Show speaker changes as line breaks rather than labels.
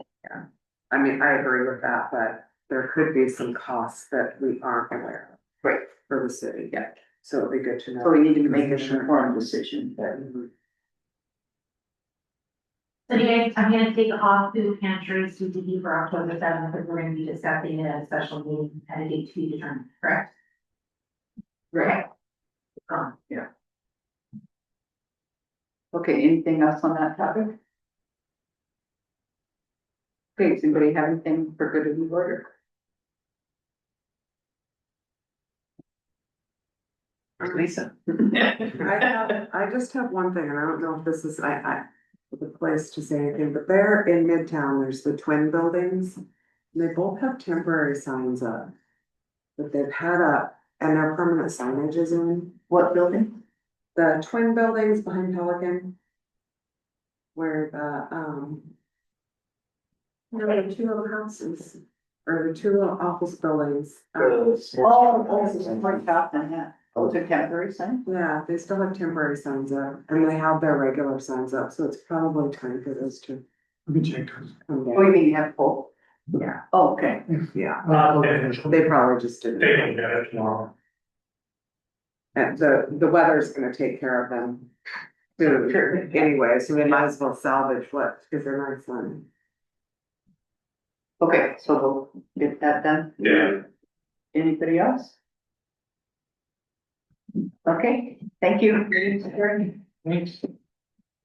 I mean, I agree with that, but there could be some costs that we aren't aware of.
Right.
For the city.
Yeah.
So it'd be good to know.
So we need to make an informed decision, but
Mhm.
So you guys, I'm gonna take off food pantries CTD E for October seventh, because we're gonna be discussing it at a uh, special meeting at a date to be determined, correct?
Right.
Um,
Okay, anything else on that topic? Okay, does anybody have anything for good of the order? Lisa.
I have, I just have one thing, and I don't know if this is, I, I, the place to say anything, but there in Midtown, there's the twin buildings. and They both have temporary signs up. That they've had up, and their permanent signage is in.
What building?
The twin buildings behind Pelican. Where the, um. There were two little houses, or the two little office buildings. um,
Oh, oh, this is more top than that. Those are temporary signs?
Yeah, they still have temporary signs up, and they have their regular signs up, so it's probably time for those to
Let me check those.
come
Oh, you
down.
mean you have both?
Yeah,
Oh, Okay,
yeah,
Uh,
they probably just didn't.
They don't get it tomorrow.
And the, the weather's gonna take care of them. soon anyway, so we might as well salvage what, because they're nice one.
okay, so we'll get that done.
Yeah.
Anybody else? Okay, thank you. Thanks.